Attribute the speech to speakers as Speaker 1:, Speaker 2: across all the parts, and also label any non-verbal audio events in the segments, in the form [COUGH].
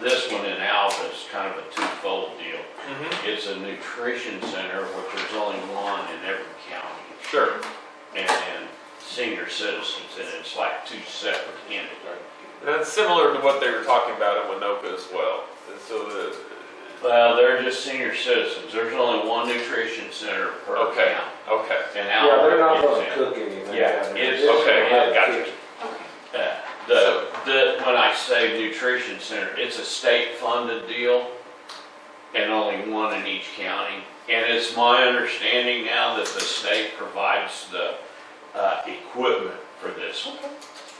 Speaker 1: this one in Alva is kind of a twofold deal.
Speaker 2: Mhm.
Speaker 1: It's a nutrition center, which there's only one in every county,
Speaker 2: Sure.
Speaker 1: and then senior citizens, and it's like two separate entities.
Speaker 2: That's similar to what they were talking about at Winoka as well. And so the,
Speaker 1: Well, they're just senior citizens, there's only one nutrition center per
Speaker 2: okay,
Speaker 1: county.
Speaker 2: okay.
Speaker 1: And
Speaker 3: Yeah, they're not
Speaker 1: Alva
Speaker 3: gonna
Speaker 1: is in.
Speaker 3: cook anything.
Speaker 1: Yeah,
Speaker 3: I mean,
Speaker 1: it's-
Speaker 3: this
Speaker 2: okay,
Speaker 3: is like
Speaker 2: gotcha.
Speaker 3: kitchen.
Speaker 4: Okay.
Speaker 1: Uh, The, the, when I say nutrition center, it's a state-funded deal, and only one in each county. And it's my understanding now that the state provides the, uh, equipment for this.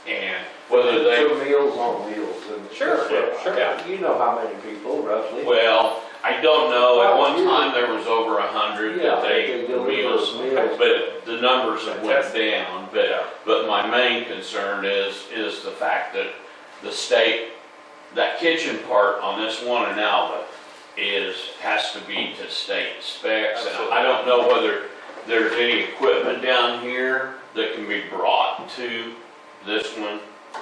Speaker 1: And whether they,
Speaker 3: So meals on wheels and.
Speaker 2: Sure, yeah, sure.
Speaker 3: Yeah, You know how many people roughly.
Speaker 1: well, I don't know, at one
Speaker 3: Well, you-
Speaker 1: time there was over a hundred
Speaker 3: Yeah,
Speaker 1: that they,
Speaker 3: deliver
Speaker 1: meals,
Speaker 3: Meals.
Speaker 1: But the numbers have went
Speaker 2: Fantastic.
Speaker 1: down, but, but my main concern is, is the fact that the state, that kitchen part on this one in Alba is, has to be to state specs. And I don't know whether there's any equipment down here that can be brought to this one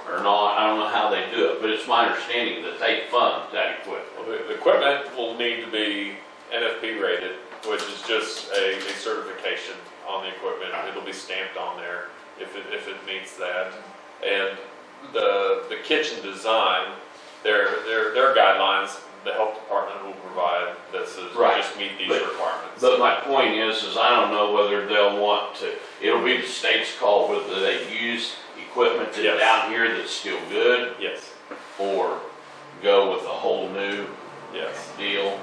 Speaker 1: or not. I don't know how they do it, but it's my understanding that they fund that equipment.
Speaker 2: Well, the, the equipment will need to be NFP rated, which is just a, a certification on the equipment. It'll be stamped on there if it, if it meets that. And the, the kitchen design, their, their, their guidelines, the health department will provide this is
Speaker 1: Right.
Speaker 2: just meet these
Speaker 1: But-
Speaker 2: requirements.
Speaker 1: But my point is, is I don't know whether they'll want to, it'll be the state's call whether they use equipment that's
Speaker 2: Yes.
Speaker 1: down here that's still good
Speaker 2: Yes,
Speaker 1: or go with a whole new
Speaker 2: yes.
Speaker 1: deal.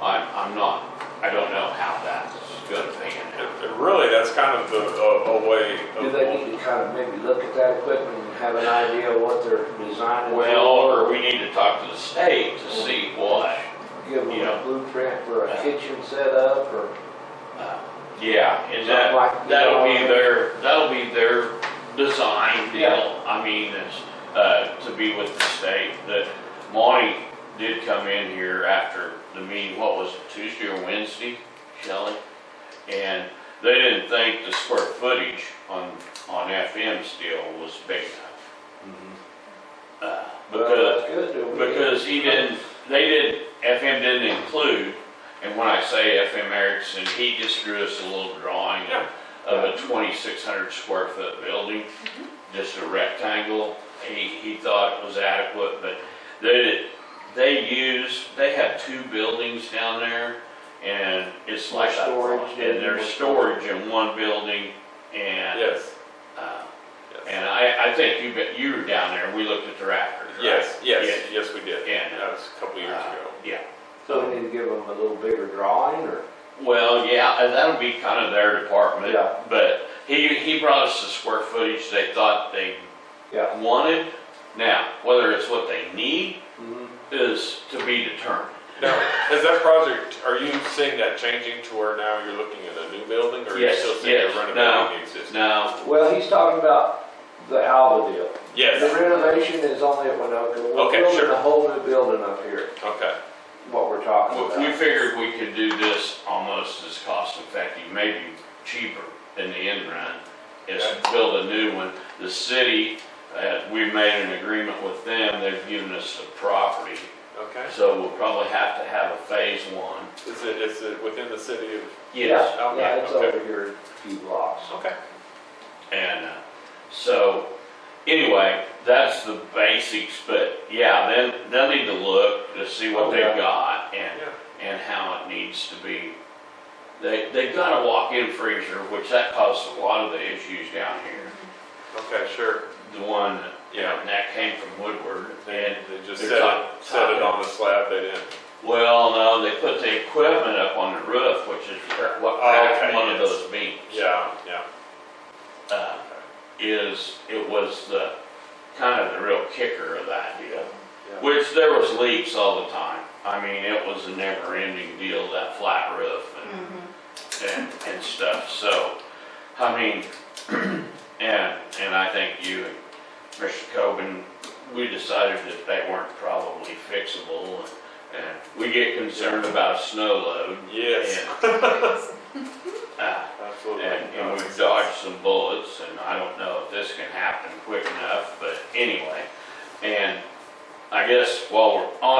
Speaker 1: I'm, I'm not, I don't know how that's gonna pan
Speaker 2: And
Speaker 1: out.
Speaker 2: and really, that's kind of the, a, a way of.
Speaker 3: Do they need to kind of maybe look at that equipment and have an idea of what they're designing?
Speaker 1: Well,
Speaker 3: for,
Speaker 1: or we need to talk to the state to see what,
Speaker 3: Give them
Speaker 1: you know.
Speaker 3: a blueprint for a
Speaker 1: Yeah.
Speaker 3: kitchen setup or
Speaker 1: uh, yeah, and
Speaker 3: something
Speaker 1: that,
Speaker 3: like. you
Speaker 1: that'll be
Speaker 3: know,
Speaker 1: their, that'll be their design deal. I mean, it's, uh, to be with the state, that Monty did come in here after the meeting, what was it, Tuesday or Wednesday, Shelley? And they didn't think the square footage on, on FM's deal was big enough.
Speaker 3: Mm-hmm.
Speaker 1: Uh,
Speaker 3: well,
Speaker 1: because
Speaker 3: that's good, do we-
Speaker 1: because he didn't, they didn't, FM didn't include, and when I say FM Erickson, he just drew us a little drawing
Speaker 2: Yeah.
Speaker 1: of a twenty-six hundred square foot building,
Speaker 2: Mm-hmm.
Speaker 1: just a rectangle. He, he thought it was adequate, but they, did- they used, they have two buildings down there, and it's like, a-
Speaker 3: Storage and-
Speaker 1: and there's storage in one building, and,
Speaker 2: Yes,
Speaker 1: uh,
Speaker 2: yes.
Speaker 1: and I, I think you, bet- you were down there, we looked at the rafters, right?
Speaker 2: Yes, yes, yes, we did.
Speaker 1: Yeah.
Speaker 2: That was a couple years
Speaker 1: Uh, [LAUGHS]
Speaker 2: ago.
Speaker 1: Yeah,
Speaker 3: So we need to give them a little bigger drawing or?
Speaker 1: well, yeah, and that'll be kind of their department,
Speaker 3: Yeah.
Speaker 1: but he, he brought us the square footage they thought they
Speaker 3: Yeah.
Speaker 1: wanted. Now, whether it's what they need
Speaker 3: Mhm.
Speaker 1: is to be determined.
Speaker 2: Now, is that project, are you seeing that changing to where now you're looking at a new building? Or are you
Speaker 1: Yes,
Speaker 2: still seeing
Speaker 1: yes,
Speaker 2: it
Speaker 1: no,
Speaker 2: renovating the existing?
Speaker 1: Now,
Speaker 3: Well, he's talking about the Alva deal. The
Speaker 2: Yes,
Speaker 3: renovation is only at Winoka. We're
Speaker 2: Okay,
Speaker 3: building
Speaker 2: sure.
Speaker 3: a whole new building up here,
Speaker 2: okay,
Speaker 3: what we're talking
Speaker 1: we- we
Speaker 3: about.
Speaker 1: figured we could do this almost as cost effective, maybe cheaper in the end run, is to build a new one. The city, uh, we made an agreement with them, they've given us the property,
Speaker 2: okay.
Speaker 1: so we'll probably have to have a phase one.
Speaker 2: Is it, is it within the city of,
Speaker 1: Yes,
Speaker 3: Yeah,
Speaker 2: okay,
Speaker 3: Yeah, it's
Speaker 2: okay.
Speaker 3: over here a few blocks.
Speaker 2: okay,
Speaker 1: and uh, so anyway, that's the basics. But yeah, then they'll need to look to see what they've
Speaker 3: Okay.
Speaker 1: got and
Speaker 2: Oh, yeah,
Speaker 1: and how it needs to be. They they've got a walk-in freezer, which that caused a lot of the issues down here.
Speaker 2: okay, sure.
Speaker 1: The one that, you know,
Speaker 2: Yeah.
Speaker 1: and that came from Woodward
Speaker 2: They,
Speaker 1: and.
Speaker 2: they just
Speaker 1: they're
Speaker 2: set
Speaker 1: top-
Speaker 2: it, set it
Speaker 1: top.
Speaker 2: on the slab, they didn't,
Speaker 1: Well, no, they put the equipment up on the roof, which is what cracked
Speaker 2: Oh, Okay,
Speaker 1: one of
Speaker 2: yes.
Speaker 1: those beams.
Speaker 2: yeah, yeah,
Speaker 1: uh, is, it was the, kind of the real kicker of that deal.
Speaker 2: Yeah.
Speaker 1: Which there was leaks all the time. I mean, it was a never ending deal, that flat roof and, and, and stuff, so, I mean, [CLEARS THROAT] and, and I think you and Mr. Coben, we decided that they weren't probably fixable and, and we get concerned about a snow load.
Speaker 2: yes,
Speaker 1: and, uh,
Speaker 2: absolutely.
Speaker 1: and,
Speaker 2: No,
Speaker 1: and
Speaker 2: makes
Speaker 1: we've
Speaker 2: sense.
Speaker 1: dodged some bullets, and I don't know if this can happen quick enough, but anyway. And I guess while we're on